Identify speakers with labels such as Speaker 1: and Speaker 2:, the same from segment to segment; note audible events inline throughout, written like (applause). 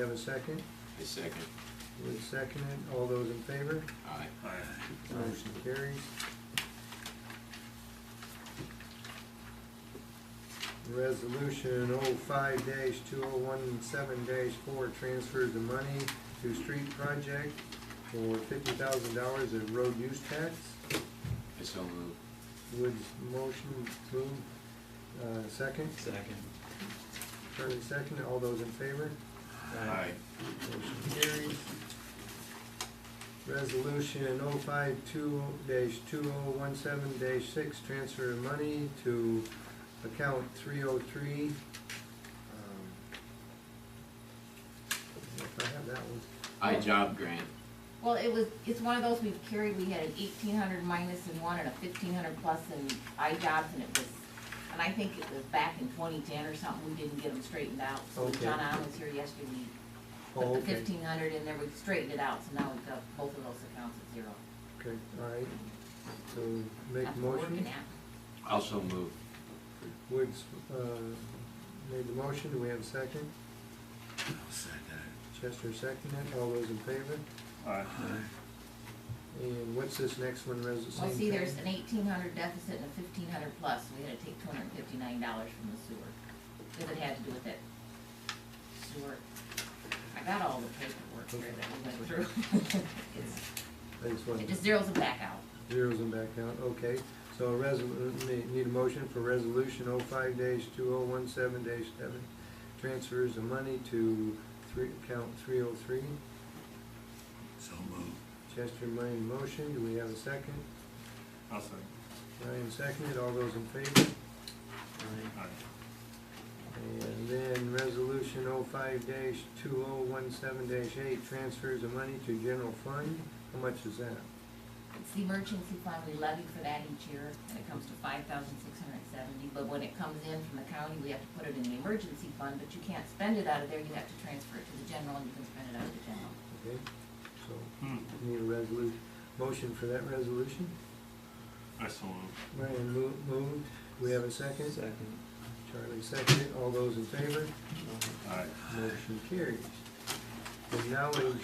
Speaker 1: We have a second?
Speaker 2: I second.
Speaker 1: Would second it. All those in favor?
Speaker 2: Aye.
Speaker 1: Motion carries. Resolution oh five dash two oh one seven dash four transfers the money to street project for fifty thousand dollars in road use tax.
Speaker 2: I so move.
Speaker 1: Woods motion move, uh, second,
Speaker 3: Second.
Speaker 1: Turner second, all those in favor? Motion carries. Resolution oh five two dash two oh one seven dash six, transfer of money to account three oh three. Um, If I have that one,
Speaker 2: I job grant.
Speaker 4: Well, it was, it's one of those we've carried, we had an eighteen hundred minus in one and a fifteen hundred plus in I jobs and it was, and I think it was back in twenty ten or something, we didn't get them straightened out. So
Speaker 1: Okay.
Speaker 4: John Allen was here yesterday, we
Speaker 1: oh,
Speaker 4: put the
Speaker 1: okay,
Speaker 4: fifteen hundred in there, we straightened it out, so now we've got both of those accounts at zero.
Speaker 1: okay, all right, so make
Speaker 4: That's
Speaker 1: a
Speaker 4: what we're working
Speaker 1: motion.
Speaker 4: at.
Speaker 2: Also move.
Speaker 1: Woods, uh, made the motion, do we have a second? Chester seconded, all those in favor? And what's this next one, res- same
Speaker 4: Well,
Speaker 1: thing?
Speaker 4: see, there's an eighteen hundred deficit and a fifteen hundred plus, so we had to take two hundred and fifty-nine dollars from the sewer, because it had to do with that sewer. I got all the paperwork here that we went through. (laughs) It's-
Speaker 1: I just wanted
Speaker 4: It
Speaker 1: to-
Speaker 4: just zeroes it back out.
Speaker 1: Zeros and back out, okay. So resol, need- need a motion for resolution oh five dash two oh one seven dash seven. Transfers of money to three, account three oh three.
Speaker 5: So moved.
Speaker 1: Chester made a motion, do we have a second?
Speaker 5: I'll second.
Speaker 1: Ryan seconded, all those in favor?
Speaker 5: Aye.
Speaker 1: And then resolution oh five dash two oh one seven dash eight, transfers of money to general fund. How much is that?
Speaker 4: It's the emergency fund, we levy for that each year, and it comes to five thousand six hundred and seventy, but when it comes in from the county, we have to put it in the emergency fund, but you can't spend it out of there, you have to transfer it to the general, and you can spend it out of the general.
Speaker 1: Okay, so
Speaker 5: Hmm.
Speaker 1: need a resolu, motion for that resolution?
Speaker 5: I so moved.
Speaker 1: Ryan mo- moved, do we have a second?
Speaker 3: Second.
Speaker 1: Charlie seconded, all those in favor?
Speaker 5: Aye.
Speaker 1: Motion carries. Acknowledge,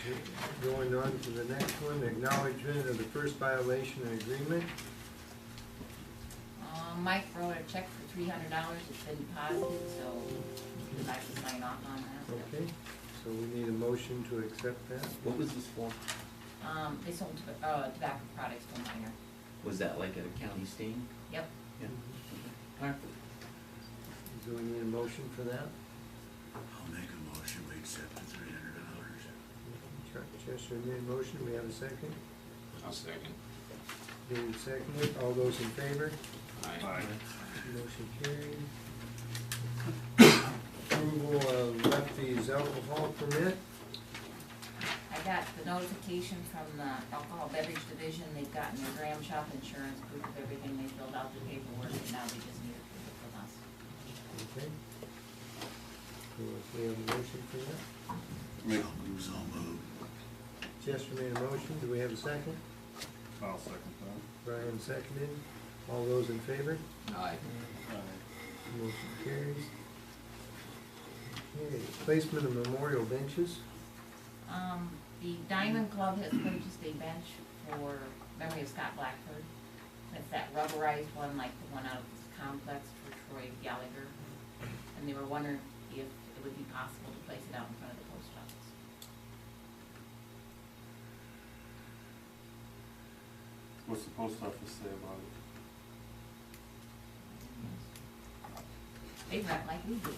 Speaker 1: going on to the next one, acknowledgement of the first violation and agreement.
Speaker 4: Um, Mike wrote a check for three hundred dollars, it's been deposited, so we'd like to sign off on that.
Speaker 1: Okay, so we need a motion to accept that.
Speaker 3: What was this for?
Speaker 4: Um, they sold, to- uh, tobacco products to a minor,
Speaker 3: Was that like a county sting?
Speaker 4: yep.
Speaker 3: Yeah. Alright.
Speaker 1: Do we need a motion for that?
Speaker 5: I'll make a motion, we accept the three hundred dollars.
Speaker 1: Chuck Chester made a motion, we have a second.
Speaker 2: I'll second.
Speaker 1: David seconded, all those in favor?
Speaker 2: Aye.
Speaker 1: Motion carried. Approval of Lefty's alcohol permit.
Speaker 4: I got the notification from the alcohol beverage division, they've gotten their gram shop insurance, proof of everything, they filled out the paperwork, and now they just need approval from us.
Speaker 1: Okay. So if we have a motion for that.
Speaker 5: Make. So moved.
Speaker 1: Chester made a motion, do we have a second?
Speaker 5: I'll second
Speaker 1: Brian seconded, all those in favor?
Speaker 2: Aye.
Speaker 5: that.
Speaker 1: Motion carries. Okay, placement of memorial benches,
Speaker 4: Um, the Diamond Club has purchased a bench for memory of Scott Blackford. It's that rubberized one, like the one out of this complex for Troy Gallagher. And they were wondering if it would be possible to place it out in front of the post office.
Speaker 5: What's the post office say about it?
Speaker 4: They rent like we do.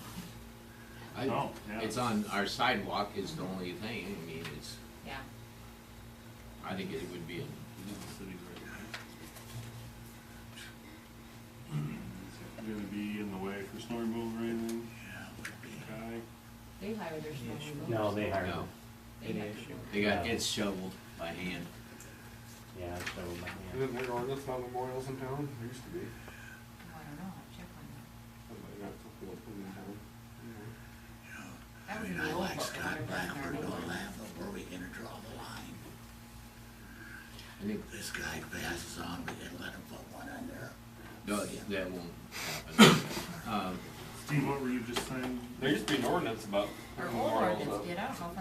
Speaker 2: I,
Speaker 5: No, Oh, yeah.
Speaker 2: it's on, our sidewalk is the only thing, I mean, it's,
Speaker 4: Yeah,
Speaker 2: I think it would be, a-
Speaker 6: Gonna be in the way for snow removal or anything? Okay.
Speaker 4: they hired their snow removal.
Speaker 7: No, they hired
Speaker 2: no,
Speaker 7: them.
Speaker 4: They
Speaker 3: Any
Speaker 4: had to
Speaker 3: issue?
Speaker 4: do it.
Speaker 2: they got, it's shoveled by hand.
Speaker 7: Yeah, so, yeah.
Speaker 6: Isn't there ordinance on memorials in town? There used to be.
Speaker 4: Oh, I don't know, I'll check on that.
Speaker 6: I might have to look in town.
Speaker 4: That
Speaker 5: I
Speaker 4: was
Speaker 5: mean,
Speaker 4: the
Speaker 5: I
Speaker 4: old
Speaker 5: like
Speaker 4: book,
Speaker 5: Scott
Speaker 4: remember, in our
Speaker 5: Blackford,
Speaker 4: old
Speaker 5: don't
Speaker 4: book.
Speaker 5: laugh, but where we gonna draw the line?
Speaker 2: I think,
Speaker 5: This guy passes on, we can let him put one in there. (laughs)
Speaker 2: no, that won't happen. Um,
Speaker 8: What were you just saying?
Speaker 5: There used to be an ordinance about.
Speaker 6: Or
Speaker 5: memorials
Speaker 6: ordinance
Speaker 5: of-
Speaker 6: did, I don't know if